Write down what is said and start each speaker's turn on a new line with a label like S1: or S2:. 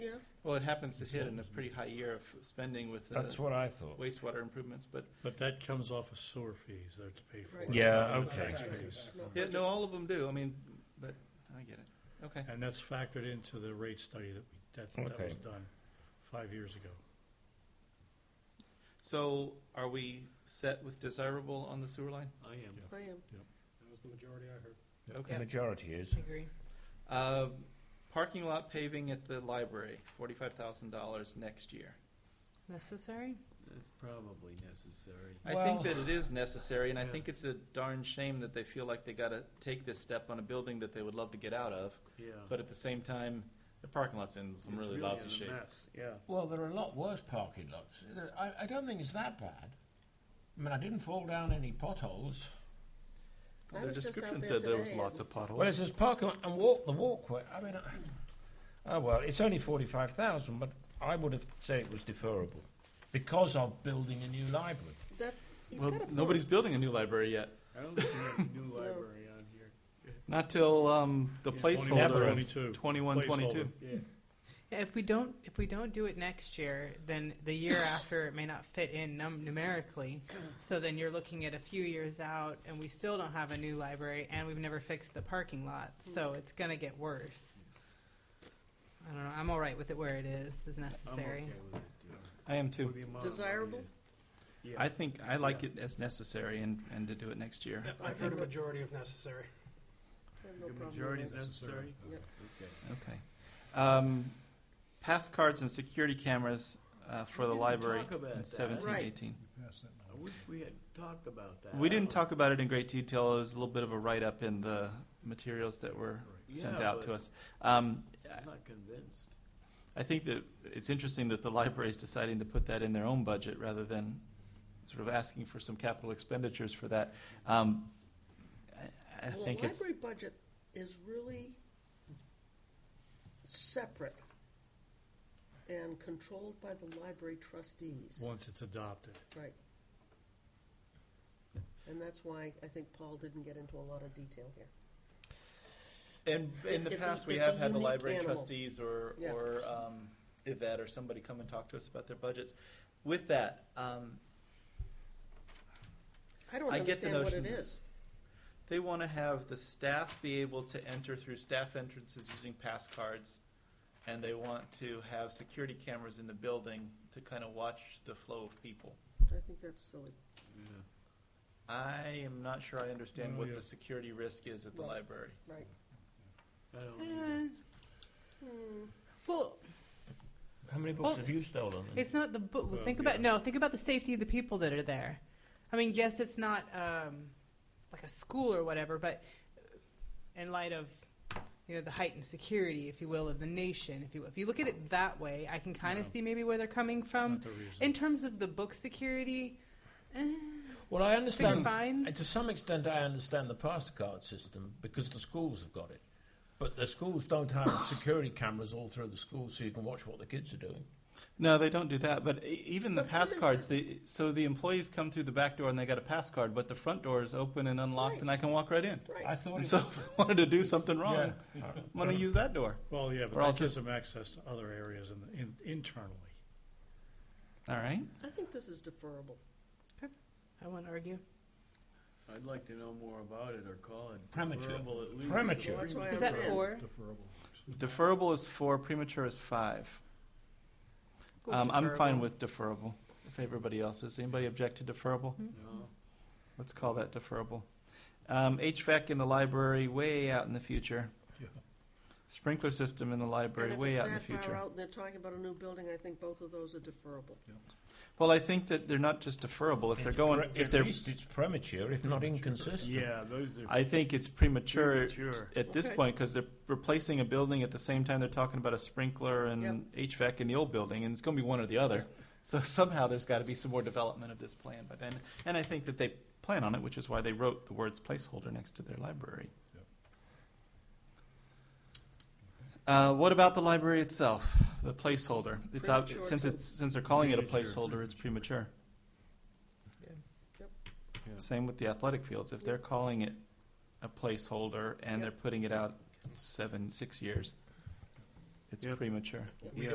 S1: Well, it happens to hit in a pretty high year of spending with the
S2: That's what I thought.
S1: wastewater improvements, but,
S3: But that comes off of sewer fees, that's paid for.
S4: Right.
S3: It's
S2: Yeah,
S3: not
S2: okay.
S3: taxes.
S1: yeah, no, all of them do, I mean, but, I get it, okay.
S3: And that's factored into the rate study that we, that, that
S2: Okay.
S3: was done five years ago.
S1: So are we set with desirable on the sewer line?
S5: I am.
S4: I am,
S5: That was the majority I heard.
S2: The
S1: Okay.
S2: majority is.
S4: I agree.
S1: Uh, Parking lot paving at the library, forty-five thousand dollars next year.
S4: Necessary?
S5: It's probably necessary.
S1: I think
S2: Well-
S1: that it is necessary, and I
S3: Yeah.
S1: think it's a darn shame that they feel like they gotta take this step on a building that they would love to get out of,
S5: Yeah.
S1: but at the same time, the parking lot's in some really lousy shape.
S5: Yeah.
S6: Well, there are a lot worse parking lots. There- I, I don't think it's that bad. I mean, I didn't fall down any potholes.
S4: I
S1: Their
S4: was just out
S1: description
S4: there
S1: said there was
S4: today
S1: lots of
S6: Well,
S1: potholes.
S6: it's just parking lot and walk the walkway. I mean, I, oh well, it's only forty-five thousand, but I would have said it was deferrable because of building a new library.
S4: That's, he's
S1: Well,
S4: got a point.
S1: nobody's building a new library yet,
S5: I don't see a new library on here.
S1: not till, um, the placeholder,
S3: Twenty-two.
S1: twenty-one, twenty-two.
S3: Placeholder.
S5: Yeah.
S7: Yeah, If we don't, if we don't do it next year, then the year after it may not fit in num- numerically. So then you're looking at a few years out, and we still don't have a new library, and we've never fixed the parking lot.
S5: Mm.
S7: So it's gonna get worse. I don't know. I'm all right with it where it is. Is
S5: I'm okay
S7: necessary.
S5: with it.
S1: I am too.
S5: yeah.
S4: Desirable?
S5: Yeah.
S1: I think, I like it as necessary and, and to do it next year.
S8: I've heard a majority of necessary.
S4: I have no
S5: The
S4: problem with
S5: majority is
S4: that.
S5: necessary?
S4: Yeah.
S5: Okay.
S1: Okay. Um, pass cards and security cameras, uh, for
S5: We
S1: the
S5: didn't
S1: library
S5: talk about
S1: in
S5: that.
S1: seventeen,
S4: Right.
S1: eighteen.
S5: I wish we had talked about that.
S1: We didn't talk about it in great detail. It was a little bit of a write-up in the materials that were sent
S5: Yeah,
S1: out to
S5: but-
S1: us. Um,
S5: I'm not convinced.
S1: I think that it's interesting that the library is deciding to put that in their own budget rather than sort of asking for some capital expenditures for that. Um, I, I
S4: Well,
S1: think it's
S4: library budget is really separate and controlled by the library trustees.
S3: Once it's adopted.
S4: Right. And that's why I think Paul didn't get into a lot of detail here.
S1: And in the
S4: It's a-
S1: past, we
S4: it's a
S1: have had the
S4: unique
S1: library
S4: animal.
S1: trustees or,
S4: Yeah.
S1: or um, Yvette or somebody come and talk to us about their budgets. With that, um,
S4: I don't
S1: I get the
S4: understand what
S1: notion.
S4: it is.
S1: they want to have the staff be able to enter through staff entrances using pass cards, and they want to have security cameras in the building to kind of watch the flow of people.
S4: I think that's silly.
S1: I am not sure I understand
S3: No,
S1: what
S3: yeah.
S1: the security risk is at the
S4: Right.
S1: library.
S4: Right.
S5: I don't either.
S4: Hmm.
S7: Uh, Well,
S2: How many books
S7: Oh.
S2: have you stolen? then?
S7: It's not the book.
S3: Well,
S7: think
S3: Oh, yeah.
S7: about no. Think about the safety of the people that are there. I mean, yes, it's not um, like a school or whatever, but uh, in light of you know the heightened security, if you will, of the nation, if you if you look at it that way, I can kind of
S3: Yeah.
S7: see maybe where they're coming
S3: It's not
S7: from
S3: the reason.
S7: in terms of the book security. Eh,
S6: Well, I
S7: bigger
S1: um,
S6: understand.
S7: fines.
S6: To some extent, I understand the pass card system because the schools have got it, but the schools don't have security cameras all through the schools, so you can watch what the kids are doing.
S1: No, they don't do that. But e- even the
S4: But
S1: pass
S4: even
S1: cards, they, so the employees come through the back door and they got a pass card, but the front door is open and unlocked, and I can walk right in.
S6: I
S4: Right.
S6: thought.
S1: And
S6: it
S1: so if I wanted to do something wrong,
S6: Yeah.
S1: I'm going to use that door.
S3: Well, yeah, but
S1: We're all
S3: that gives
S1: just-
S3: them access to other areas in, in, internally.
S1: All right.
S4: I think this is deferrable.
S7: I won't argue.
S5: I'd like to know more about it or call it.
S6: Premature.
S5: deferrable at least.
S6: Premature.
S4: Well, that's why I
S7: Is that
S4: ran.
S7: four?
S1: Deferrable is four, premature is five. Um, I'm fine with deferrable. If everybody else is, anybody object to deferrable?
S5: No.
S1: Let's call that deferrable. Um, HVAC in the library, way out in the future. Sprinkler system in the library, way out in the
S4: And if it's that
S1: future.
S4: far out and they're talking about a new building, I think both of those are deferrable.
S1: Well, I think that they're not just deferrable. If they're
S6: It's
S1: going,
S6: pre-
S1: if
S6: at
S1: they're,
S6: least it's premature, if not inconsistent.
S5: Yeah, those are.
S1: I think it's premature
S5: Premature.
S1: at this
S4: Okay.
S1: point because they're replacing a building at the same time they're talking about a sprinkler and HVAC in the old building, and it's going to be one or the other. So somehow there's got to be some more development of this plan by then, and I think that they plan on it, which is why they wrote the words placeholder next to their library. Uh, what about the library itself? The placeholder. It's out,
S4: Premature.
S1: since it's since they're calling it a
S5: Premature.
S1: placeholder, it's premature.
S4: Yep.
S5: Yeah.
S1: Same with the athletic fields. If they're calling it a placeholder and
S4: Yep.
S1: they're putting it out seven, six years, it's
S5: Yep.
S1: premature.
S4: Yep.
S5: Yeah.